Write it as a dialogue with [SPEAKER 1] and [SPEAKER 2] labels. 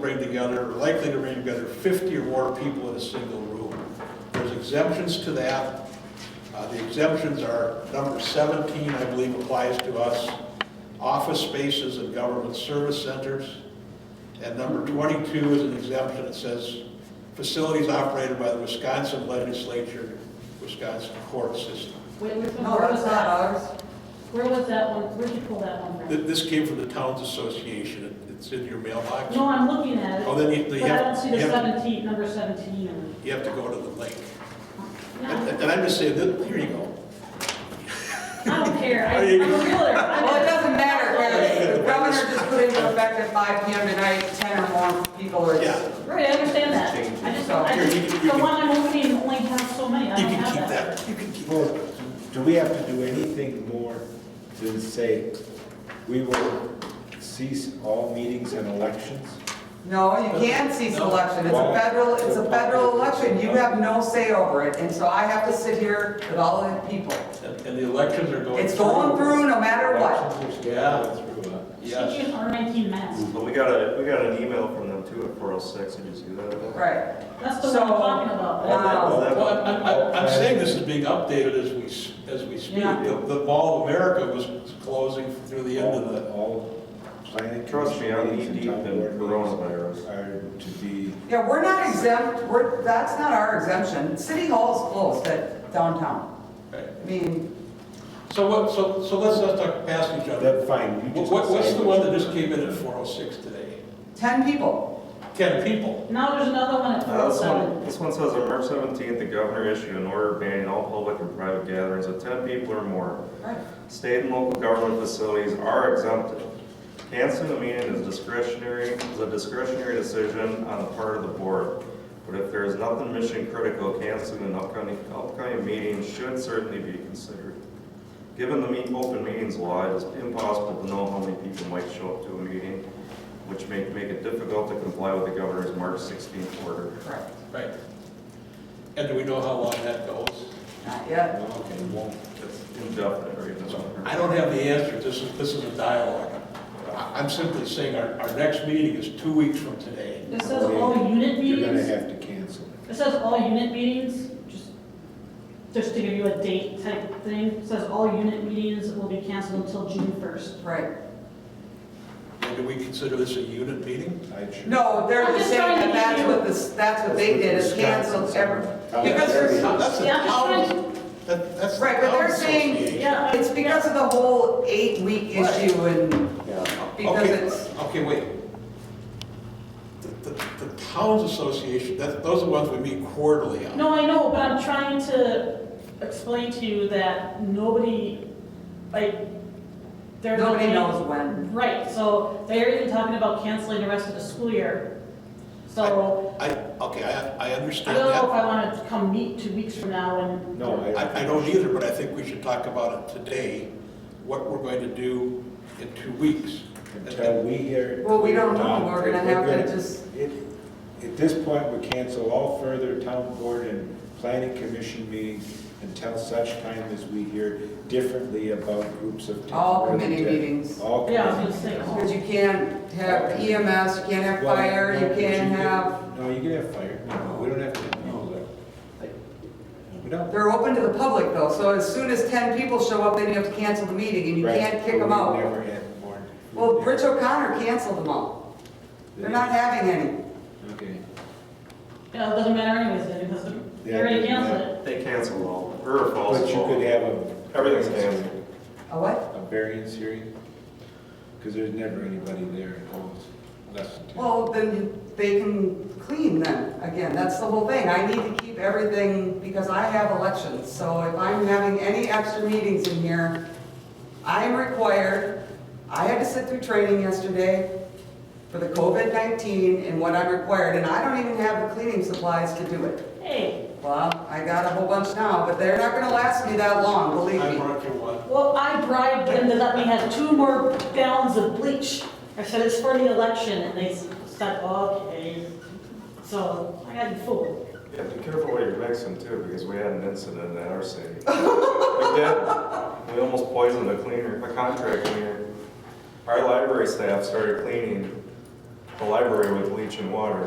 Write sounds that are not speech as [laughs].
[SPEAKER 1] bring together, or likely to bring together 50 or more people in a single room. There's exemptions to that. Uh, The exemptions are, number 17, I believe, applies to us, office spaces and government service centers. And number 22 is an exemption that says facilities operated by the Wisconsin legislature, Wisconsin court system.
[SPEAKER 2] Wait, which one,
[SPEAKER 3] No,
[SPEAKER 2] where
[SPEAKER 3] that's
[SPEAKER 2] was
[SPEAKER 3] not
[SPEAKER 2] that?
[SPEAKER 3] ours.
[SPEAKER 2] Where was that one, where'd you pull that one
[SPEAKER 1] Th-
[SPEAKER 2] from?
[SPEAKER 1] This came from the Towns Association. It's in your mailbox.
[SPEAKER 2] No, I'm looking at it.
[SPEAKER 1] Oh, then you- then you
[SPEAKER 2] But I
[SPEAKER 1] have-
[SPEAKER 2] don't see the
[SPEAKER 1] you have-
[SPEAKER 2] seventeen, number seventeen. in
[SPEAKER 1] You have to go to the link.
[SPEAKER 2] it. No,
[SPEAKER 1] [laughs] And and I'm just saying, that- here you go.
[SPEAKER 2] I don't care, I-
[SPEAKER 1] Are you-
[SPEAKER 2] I'm a realtor. I'm
[SPEAKER 3] Well, it
[SPEAKER 2] a-
[SPEAKER 3] doesn't matter whether the governor just put into effect at 5 PM tonight, 10 or more people are.
[SPEAKER 1] Yeah.
[SPEAKER 2] Right, I understand that. I just, I
[SPEAKER 1] Here, you
[SPEAKER 2] just,
[SPEAKER 1] can- you
[SPEAKER 2] the
[SPEAKER 1] can-
[SPEAKER 2] one I'm opening only has so many, I
[SPEAKER 1] You
[SPEAKER 2] don't
[SPEAKER 1] can
[SPEAKER 2] have
[SPEAKER 1] keep
[SPEAKER 2] that.
[SPEAKER 1] that. You can keep
[SPEAKER 4] Well,
[SPEAKER 1] that.
[SPEAKER 4] do we have to do anything more to say, we will cease all meetings and elections?
[SPEAKER 3] No, you can't cease election. It's a federal, it's a federal election. You have no say over it. And so I have to sit here with all of the people.
[SPEAKER 1] And and the elections are going.
[SPEAKER 3] It's going through no matter what.
[SPEAKER 4] Elections are
[SPEAKER 1] Yeah.
[SPEAKER 4] scheduled through, uh,
[SPEAKER 2] She
[SPEAKER 1] Yes.
[SPEAKER 2] can R nineteen mask.
[SPEAKER 1] Mm.
[SPEAKER 5] But we got a, we got an email from them too at 406, did you see that?
[SPEAKER 3] Right.
[SPEAKER 2] That's the one I'm
[SPEAKER 3] So-
[SPEAKER 2] talking about.
[SPEAKER 3] Wow.
[SPEAKER 1] Well, I- I- I- I'm saying this is being updated as we, s- as we speak.
[SPEAKER 2] Yeah.
[SPEAKER 1] The the Mall of America was closing through the end of the,
[SPEAKER 4] All planning.
[SPEAKER 5] Trust me, I'm
[SPEAKER 4] commission meetings
[SPEAKER 5] knee-deep
[SPEAKER 4] and town
[SPEAKER 5] in
[SPEAKER 4] board meetings
[SPEAKER 5] coronavirus.
[SPEAKER 4] Are to be,
[SPEAKER 3] Yeah, we're not exempt, we're, that's not our exemption. City Hall's closed at downtown.
[SPEAKER 1] okay.
[SPEAKER 3] I mean,
[SPEAKER 1] So what, so, so let's not talk past each other.
[SPEAKER 4] that fine. you
[SPEAKER 1] What,
[SPEAKER 4] just
[SPEAKER 1] what- what's
[SPEAKER 4] decide
[SPEAKER 1] the one
[SPEAKER 4] which
[SPEAKER 1] that just came in at 406 today?
[SPEAKER 3] 10 people.
[SPEAKER 1] Ten people.
[SPEAKER 2] Now there's another one at
[SPEAKER 5] Uh,
[SPEAKER 2] four oh
[SPEAKER 5] This one,
[SPEAKER 2] seven.
[SPEAKER 5] this one says on March 17th, the governor issued an order banning all public and private gatherings of 10 people or more.
[SPEAKER 3] Right.
[SPEAKER 5] State and local government facilities are exempted. Canceling a meeting is discretionary, is a discretionary decision on the part of the board. But if there is nothing mission critical, canceling an upcoming, upcoming meeting should certainly be considered. Given the meet, open meetings law, it is impossible to know how many people might show up to a meeting, which may make it difficult to comply with the governor's March 16th order.
[SPEAKER 3] Correct.
[SPEAKER 1] Right. And do we know how long that goes?
[SPEAKER 3] Not yet.
[SPEAKER 4] one- Okay, well,
[SPEAKER 5] It's indefinite right now.
[SPEAKER 1] I don't have the answer, this is, this is a dialogue. I- I'm simply saying our, our next meeting is two weeks from today.
[SPEAKER 2] It says all unit
[SPEAKER 4] you're gonna
[SPEAKER 2] meetings.
[SPEAKER 4] have to cancel it.
[SPEAKER 2] It says all unit meetings, just, just to give you a date type thing. It says all unit meetings will be canceled until June first.
[SPEAKER 3] Right.
[SPEAKER 1] And do we consider this a unit meeting?
[SPEAKER 4] I'd sure-
[SPEAKER 3] No, they're
[SPEAKER 2] I'm
[SPEAKER 3] just
[SPEAKER 2] just
[SPEAKER 3] saying
[SPEAKER 2] trying to
[SPEAKER 3] that that's
[SPEAKER 2] give
[SPEAKER 3] what this, that's what they did, is
[SPEAKER 4] Wisconsin,
[SPEAKER 3] canceled
[SPEAKER 4] so-
[SPEAKER 3] every,
[SPEAKER 4] How
[SPEAKER 3] because
[SPEAKER 4] dare
[SPEAKER 3] there's-
[SPEAKER 4] you.
[SPEAKER 1] That's a
[SPEAKER 2] Yeah, I'm just
[SPEAKER 1] town-
[SPEAKER 2] trying to-
[SPEAKER 1] that- that's. the
[SPEAKER 3] Right, but they're
[SPEAKER 1] town
[SPEAKER 3] saying-
[SPEAKER 1] association.
[SPEAKER 2] Yeah.
[SPEAKER 3] it's because of the whole eight-week
[SPEAKER 1] Right.
[SPEAKER 3] issue and
[SPEAKER 4] Yeah.
[SPEAKER 3] because
[SPEAKER 1] Okay,
[SPEAKER 3] it's,
[SPEAKER 1] Okay, wait. The, the, the towns association, that, those are the ones we meet quarterly on.
[SPEAKER 2] No, I know, but I'm trying to explain to you that nobody, like, they're.
[SPEAKER 3] nobody knows when.
[SPEAKER 2] Right, so they're even talking about canceling the rest of the school year. So
[SPEAKER 1] I, okay, I, I
[SPEAKER 2] I
[SPEAKER 1] understand
[SPEAKER 2] don't know if
[SPEAKER 1] that.
[SPEAKER 2] I want to come meet two weeks from now and.
[SPEAKER 4] No,
[SPEAKER 1] I, I don't either, but I think we should talk about it today, what we're going to do in two weeks.
[SPEAKER 4] Until we hear.
[SPEAKER 3] Well, we don't know.
[SPEAKER 4] Tom,
[SPEAKER 3] We're gonna have to just-
[SPEAKER 4] it- At this point, we cancel all further town board and planning commission meetings until such time as we hear differently about groups of. town
[SPEAKER 3] All
[SPEAKER 4] board
[SPEAKER 3] committee
[SPEAKER 4] and-
[SPEAKER 3] meetings.
[SPEAKER 4] All
[SPEAKER 2] Yeah, I was
[SPEAKER 4] committee
[SPEAKER 2] gonna say,
[SPEAKER 3] Because
[SPEAKER 4] meetings.
[SPEAKER 3] you can't have EMS, you can't have
[SPEAKER 4] Well,
[SPEAKER 3] fire,
[SPEAKER 4] no,
[SPEAKER 3] you
[SPEAKER 4] but
[SPEAKER 3] can't
[SPEAKER 4] can-
[SPEAKER 3] have,
[SPEAKER 4] No, you can have fire, No, we don't have to have people there. We don't.
[SPEAKER 3] they're open to the public though, so as soon as ten people show up, then you have to cancel the meeting and you
[SPEAKER 4] Right,
[SPEAKER 3] can't
[SPEAKER 4] but
[SPEAKER 3] kick them
[SPEAKER 4] we
[SPEAKER 3] out.
[SPEAKER 4] Never had more.
[SPEAKER 3] Well, Rich O'Connor canceled them all. They're not having any.
[SPEAKER 4] Okay.
[SPEAKER 2] You know, it doesn't matter anyways, because they already canceled it.
[SPEAKER 5] They canceled all, or false.
[SPEAKER 4] But you could have a.
[SPEAKER 5] Everything's canceled.
[SPEAKER 3] A what?
[SPEAKER 4] a variance hearing? Because there's never anybody there in holds less than ten.
[SPEAKER 3] Well, then they can clean then, again, that's the whole thing. I need to keep everything, because I have elections, so if I'm having any extra meetings in here, I am required, I had to sit through training yesterday for the COVID-19 and what I'm required, and I don't even have the cleaning supplies to do it.
[SPEAKER 2] Hey,
[SPEAKER 3] Well, I got a whole bunch now, but they're not gonna last me that long, believe
[SPEAKER 1] I
[SPEAKER 3] me.
[SPEAKER 1] brought you one.
[SPEAKER 2] well, I bribed them to let me have two more gallons of bleach. I said, it's for the election, and they said, okay. So I got fooled.
[SPEAKER 5] Yeah, be careful what you're mixing too, because we had an incident at our city. We did, we almost poisoned a cleaner, a contract cleaner. Our library staff started cleaning the library with bleach and water.